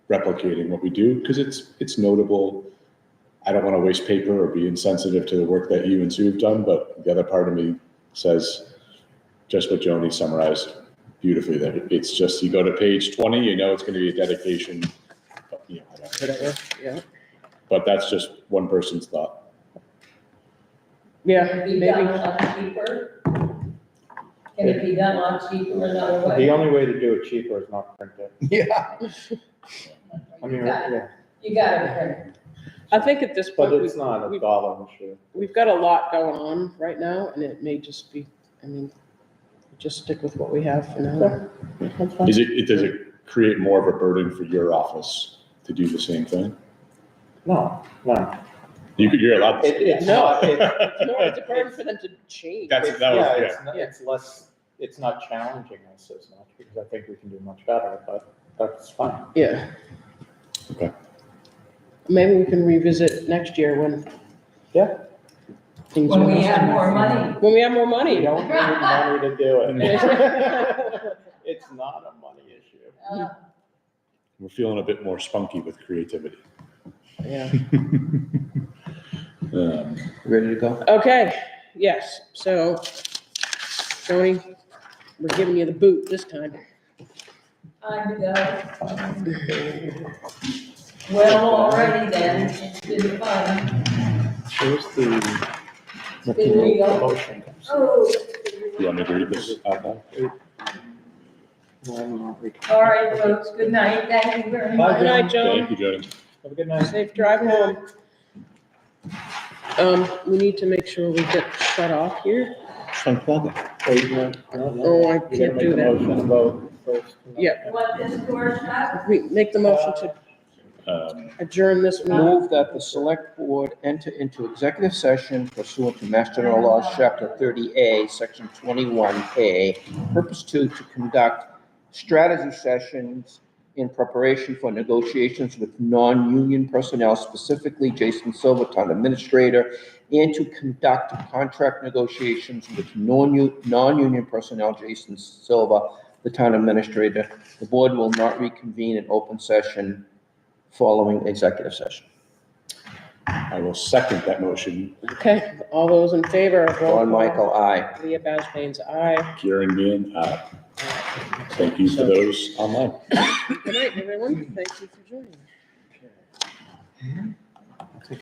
replicating what we do because it's, it's notable. I don't want to waste paper or be insensitive to the work that you and Sue have done, but the other part of me says just what Joni summarized beautifully there. It's just, you go to page 20, you know it's going to be a dedication. but, you know, I don't- whatever, yeah. But that's just one person's thought. Yeah, Can it be maybe, done a lot cheaper? Can it be done a lot cheaper another The way? only way to do it cheaper is not print it. I mean, You got- yeah, You gotta print. I think at this but point, it's we've, not a dollar issue. we've got a lot going on right now, and it may just be, I mean, just stick with what we have for now. That's fine. Is it, it, does it create more of a burden for your office to do the same thing? No, no. You could, you're allowed. to It, say it's No, not, it, No, it's a burden for them to change. That's, it's, that was, yeah, yeah. it's, not- it's less, it's not challenging us as much, because I think we can do much better, but that's fine. Yeah. Okay. Maybe we can revisit next year when. Yeah. things When are- we have more money. When we have more money. We don't need money to do it. It's not a money issue. uh, We're feeling a bit more spunky with creativity. Yeah. Um, Ready to go? Okay, yes, so, Tony, we're giving you the boot this time. Time to go. Well, already then, it's been fun. Here's the. Did we go? Motion. Oh. You want me to read this out loud? Why not? We can- All right, folks, good night, thank you very Good much. night, Joan. Thank you, Jody. Have a good night. Safe drive home. Um, we need to make sure we get shut off here. Wait, no, no, no. Oh, I You gotta can't make do a that. Motion about first. Yeah. What this course up? We make the motion to Um, adjourn this meeting. Move that the select board enter into executive session pursuant to Mass General Laws, Chapter 30A, Section 21A, Purpose 2, to conduct strategy sessions in preparation for negotiations with non-union personnel, specifically Jason Silva, Town Administrator, and to conduct contract negotiations with non-u- non-union personnel, Jason Silva, the Town Administrator. The board will not reconvene in open session following executive session. I will second that motion. Okay, all those in favor? roll John Michael, aye. call. Leah Basbane's aye. Kieran being, aye. Thank you for those online. Good night, everyone. Thank you for joining.